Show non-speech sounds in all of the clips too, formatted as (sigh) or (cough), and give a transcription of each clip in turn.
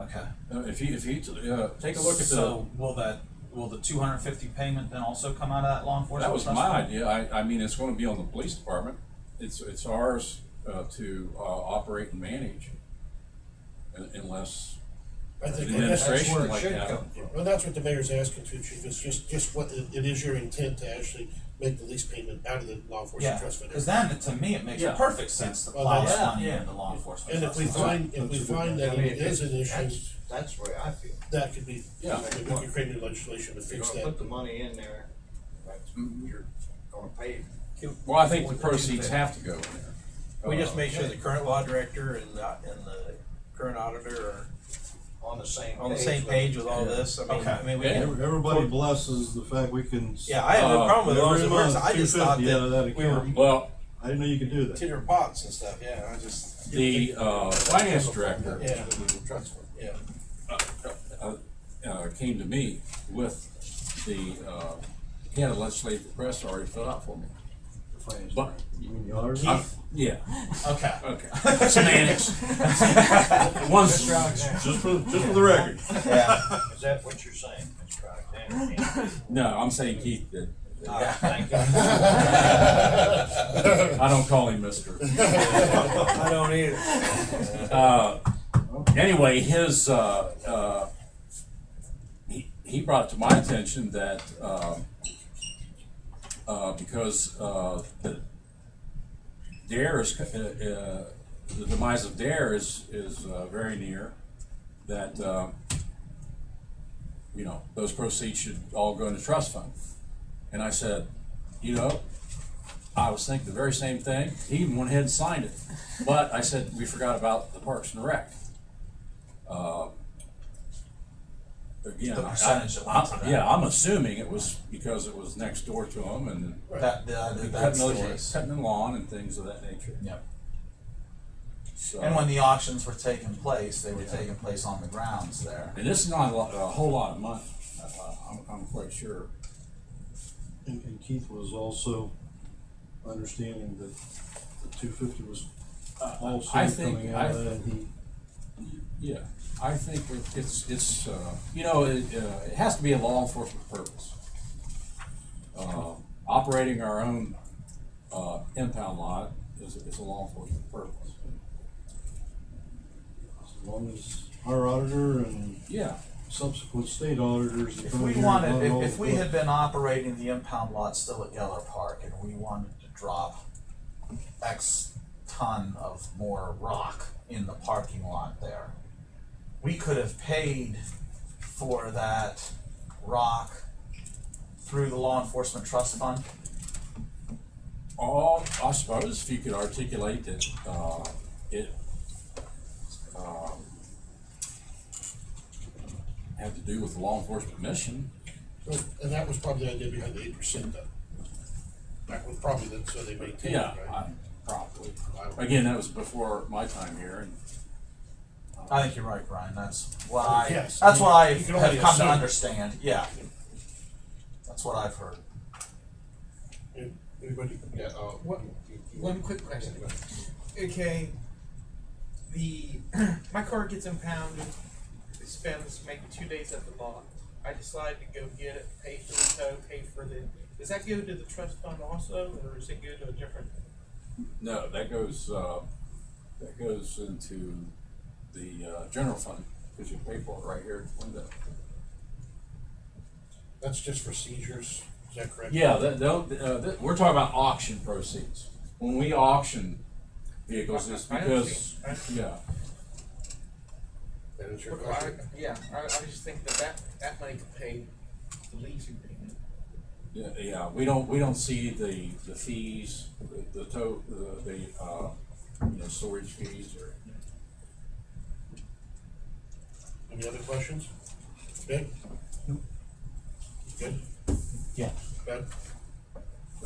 Okay. Uh, If he, if he, uh, take a look at the, So will that, will the two hundred and fifty payment then also come out of that law enforcement? that was trust my fund? idea, I, I mean, it's gonna be on the police department, it's, it's ours, uh, to, uh, operate and manage. Un- Unless, I think The that's administration where it like should that. come from. Well, that's what the mayor's asking too, chief, is just, just what, the- it is your intent to actually make the lease payment out of the law enforcement Yeah, trust fund. cause then, to me, it makes Yeah. perfect sense to Well, plow that's- that money into law enforcement. And if trust we fund. find, if we That's a good find idea. that I mean, it is an issue, That's, that's where I feel. that could be, Yeah. we could create new legislation to If you're fix gonna that. put the money in there, that's, you're gonna pay. well, I think the proceeds have to go in there. We Uh, just make sure the current law director and the, and the current auditor are On the same. on the same with- page with all this, I mean, Okay. I mean, we Yeah. can. Every- Everybody blesses the fact we can. s- Yeah, I have no Uh, problem with every those words, month, I just thought 250 out of that that we were account. Well, I didn't know you could do that. titter pots and stuff, yeah, I just, the, uh, finance director, Yeah. Trust fund. yeah. uh, came to me with the, uh, he had a legislative request already filled out for me. But, You mean the auditor? I- yeah, Okay. (laughs) okay. Once, Mr. Alexander, just for, just for the record. is that what you're saying, Mr. (laughs) Alexander? No, I'm saying Keith did. Yeah, thank you. I don't call him mister. I don't either. Uh, anyway, his, uh, uh, he, he brought to my attention that, uh, uh, because, uh, the Dare is, uh, uh, the demise of Dare is, is, uh, very near, that, uh, you know, those proceeds should all go into trust fund. And I said, you know, I was thinking the very same thing. He even went ahead and signed it. But I said, we forgot about the Parks and Rec. Uh, Again, The I- percentage that went to I- that. yeah, I'm assuming it was because it was next door to him and That, that, that- that's cutting, the those- case. cutting the lawn and things of that nature. Yep. So, And when the auctions were taking place, they were Yeah. taking place on the grounds there. and this is not a, lot, a whole lot of money, uh, I'm, I'm quite sure. And and Keith was also understanding that the two fifty was Uh, also I think- coming out of I- that. He- Yeah, I think it- it's, it's, uh, you know, it, uh, it has to be a law enforcement purpose. Uh, Operating our own, uh, impound lot is, is a law enforcement purpose. As long as our auditor and Yeah, subsequent state auditors. If come we here and wanted, audit all if, if the we had books. been operating the impound lot still at Geller Park and we wanted to drop X ton of more rock in the parking lot there, we could have paid for that rock through the law enforcement trust fund. all, I suppose if you could articulate that, uh, it, um, had to do with the law enforcement mission, Well, And that was probably the idea behind the eight percent though. That was probably that, so they maintain it, yeah, right? I- probably. I don't- Again, that was before my time here and I think you're right, Brian, that's what I, Yes. that's what I You can only have come to assume. understand, yeah. That's what I've heard. Anybody, yeah, uh, What, one quick question. Okay, the (clears throat) my car gets impounded. It spends maybe two days at the lot. I decide to go get it, pay for the tow, pay for the. Does that go to the trust fund also, or does it go to a different? No, that goes, uh, that goes into the, uh, general fund, cause you pay for it right here at the window. that's just for seizures, is that correct? Yeah, that, they'll, uh, that, we're talking about auction proceeds. When we auction vehicles, it's I because, understand. yeah, That is your Well, I, question. yeah, I, I was just thinking that that, that money could pay the leasing payment. yeah, yeah, we don't, we don't see the, the fees, the, the to, the, the, uh, you know, storage fees or. Any other questions? Ben? Good? Yeah. Ben?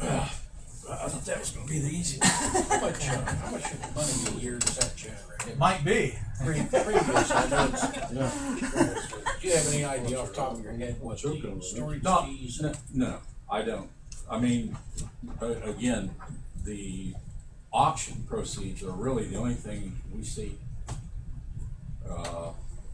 I thought that was gonna be the easiest. How much, uh, how much money a year does that generate? It might be. Previous, I know it's- Yeah, Do you have any idea off the top of your head what Joke on the it. storage No, fees? no, no, I don't. I mean, a- again, the auction proceeds are really the only thing we see. Uh,